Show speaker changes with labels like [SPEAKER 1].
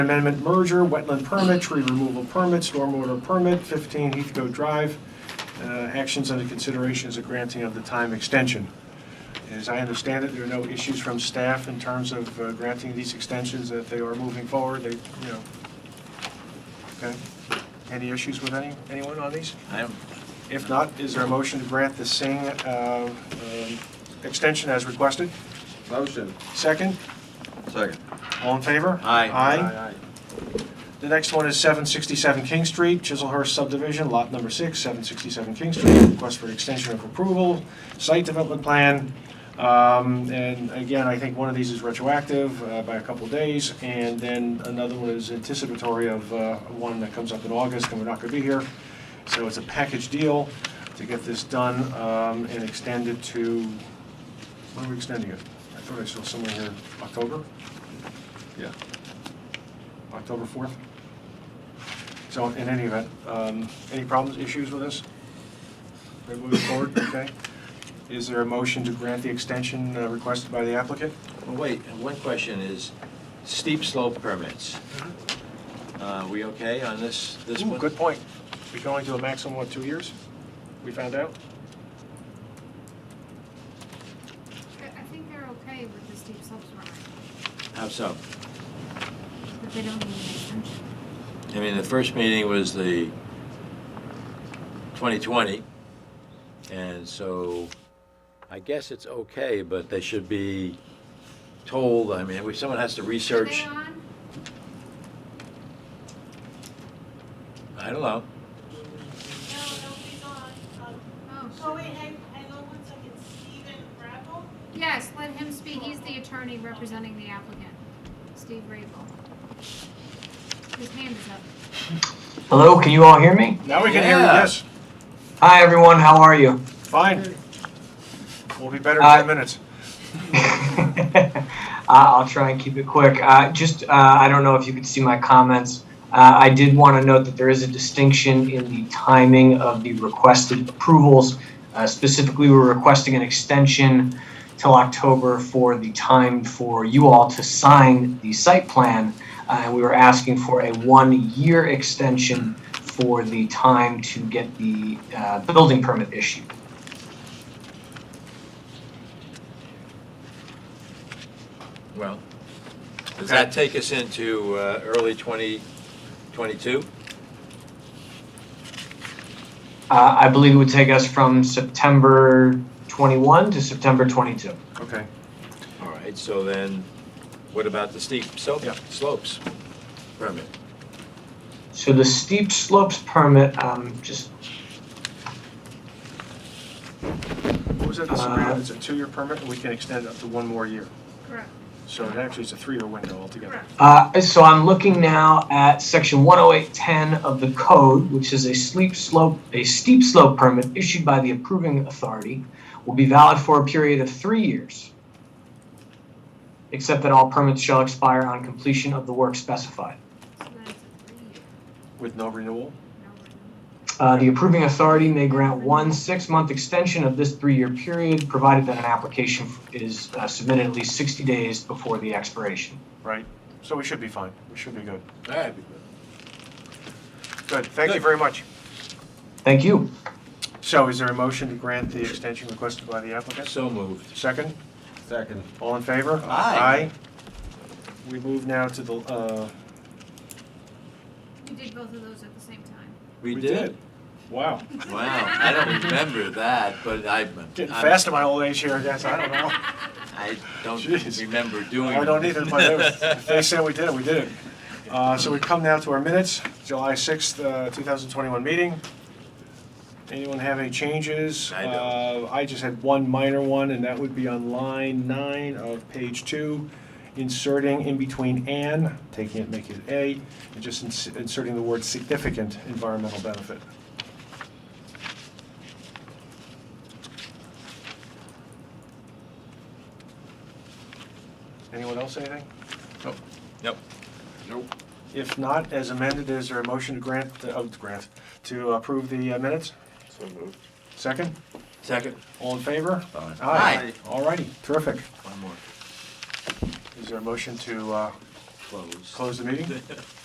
[SPEAKER 1] Amendment merger, wetland permit, tree removal permit, stormwater permit, 15 Heathcote Drive. Uh, Actions under consideration is a granting of the time extension. As I understand it, there are no issues from staff in terms of uh, granting these extensions, that they are moving forward, they, you know. Okay. Any issues with any, anyone on these?
[SPEAKER 2] I'm,
[SPEAKER 1] If not, is there a motion to grant the Singh uh, um, extension as requested?
[SPEAKER 3] Motion.
[SPEAKER 1] Second?
[SPEAKER 2] second.
[SPEAKER 1] All in favor?
[SPEAKER 2] Aye.
[SPEAKER 1] Aye. The next one is 767 King Street, Chiselhurst subdivision, lot number six, 767 King Street. Request for extension of approval, site development plan. Um, And again, I think one of these is retroactive uh, by a couple of days, and then another one is anticipatory of uh, one that comes up in August, and we're not going to be here. So it's a package deal to get this done um, and extended to, when are we extending it? I thought I saw somewhere here, October?
[SPEAKER 2] Yeah.
[SPEAKER 1] October 4th. So in any event, um, any problems, issues with this? We're moving forward, okay? Is there a motion to grant the extension uh, requested by the applicant?
[SPEAKER 2] Well, wait, and one question is steep slope permits. Uh, we okay on this, this
[SPEAKER 1] Ooh,
[SPEAKER 2] one?
[SPEAKER 1] Mm, Good point. We can only do a maximum, what, two years? We found out?
[SPEAKER 4] I I think they're okay with the steep slopes permit,
[SPEAKER 2] How so?
[SPEAKER 4] but they don't need an extension.
[SPEAKER 2] I mean, the first meeting was the 2020, and so I guess it's okay, but they should be told, I mean, if someone has to
[SPEAKER 4] Are they
[SPEAKER 2] research,
[SPEAKER 4] on?
[SPEAKER 2] I don't know.
[SPEAKER 5] No, nobody's on. Um,
[SPEAKER 4] Oh,
[SPEAKER 5] Oh, wait, hang, hang on one second. Steven Rabble?
[SPEAKER 4] yes, let him speak. He's the attorney representing the applicant, Steve Rabel. His hand is up.
[SPEAKER 6] Hello, can you all hear me?
[SPEAKER 1] Now we can hear you,
[SPEAKER 2] Yeah.
[SPEAKER 1] yes.
[SPEAKER 6] Hi, everyone. How are you?
[SPEAKER 1] Fine. We'll be better in 10
[SPEAKER 6] Aye.
[SPEAKER 1] minutes.
[SPEAKER 6] uh, I'll try and keep it quick. Uh, just, uh, I don't know if you could see my comments. Uh, I did want to note that there is a distinction in the timing of the requested approvals. Uh, specifically, we're requesting an extension till October for the time for you all to sign the site plan. Uh, we were asking for a one-year extension for the time to get the uh, building permit issued.
[SPEAKER 2] Well, does that take us into uh, early 2022?
[SPEAKER 6] Uh, I believe it would take us from September 21 to September 22.
[SPEAKER 1] Okay.
[SPEAKER 2] All right, so then, what about the steep slope,
[SPEAKER 1] Yeah.
[SPEAKER 2] slopes permit?
[SPEAKER 6] So the steep slopes permit, um, just,
[SPEAKER 1] What was that,
[SPEAKER 6] Uh,
[SPEAKER 1] Sabrina? It's a two-year permit, and we can extend it up to one more year.
[SPEAKER 4] Correct.
[SPEAKER 1] So it actually is a three-year window altogether.
[SPEAKER 6] uh, so I'm looking now at section 10810 of the code, which is a steep slope, a steep slope permit issued by the approving authority will be valid for a period of three years. Except that all permits shall expire on completion of the work specified.
[SPEAKER 4] So that's a three-year,
[SPEAKER 1] With no renewal?
[SPEAKER 4] no renewal.
[SPEAKER 6] Uh, The approving authority may grant one six-month extension of this three-year period, provided that an application is uh, submitted at least 60 days before the expiration.
[SPEAKER 1] Right. So we should be fine. We should be good.
[SPEAKER 2] All right.
[SPEAKER 1] Good. Thank you
[SPEAKER 2] Good.
[SPEAKER 1] very much.
[SPEAKER 6] Thank you.
[SPEAKER 1] So is there a motion to grant the extension requested by the applicant?
[SPEAKER 2] So moved.
[SPEAKER 1] Second,
[SPEAKER 3] Second.
[SPEAKER 1] all in favor?
[SPEAKER 2] Aye.
[SPEAKER 1] We move now to the, uh,
[SPEAKER 4] We did both of those at the same time.
[SPEAKER 2] We
[SPEAKER 1] We
[SPEAKER 2] did.
[SPEAKER 1] wow,
[SPEAKER 2] Wow, I don't remember that, but I,
[SPEAKER 1] getting
[SPEAKER 2] I'm-
[SPEAKER 1] fast in my old age here, I guess, I don't know.
[SPEAKER 2] I don't
[SPEAKER 1] Jeez.
[SPEAKER 2] remember doing.
[SPEAKER 1] I don't either, but if they
[SPEAKER 2] it.
[SPEAKER 1] said we did it, we did it. Uh, So we come now to our minutes, July 6th, uh, 2021 meeting. Anyone have any changes?
[SPEAKER 2] I don't.
[SPEAKER 1] Uh, I just had one minor one, and that would be on line nine of page two, inserting in between "and," taking it, making it "a," and just ins- inserting the word "significant environmental benefit." Anyone else say anything?
[SPEAKER 2] Nope.
[SPEAKER 1] If not, as amended, is there a motion to grant, oh, to grant, to approve the uh, minutes?
[SPEAKER 3] So moved.
[SPEAKER 1] Second?
[SPEAKER 2] Second.
[SPEAKER 1] All in favor?
[SPEAKER 2] Aye.
[SPEAKER 1] All righty, terrific.
[SPEAKER 2] One more.
[SPEAKER 1] Is there a motion to uh,
[SPEAKER 2] close.
[SPEAKER 1] Close the meeting?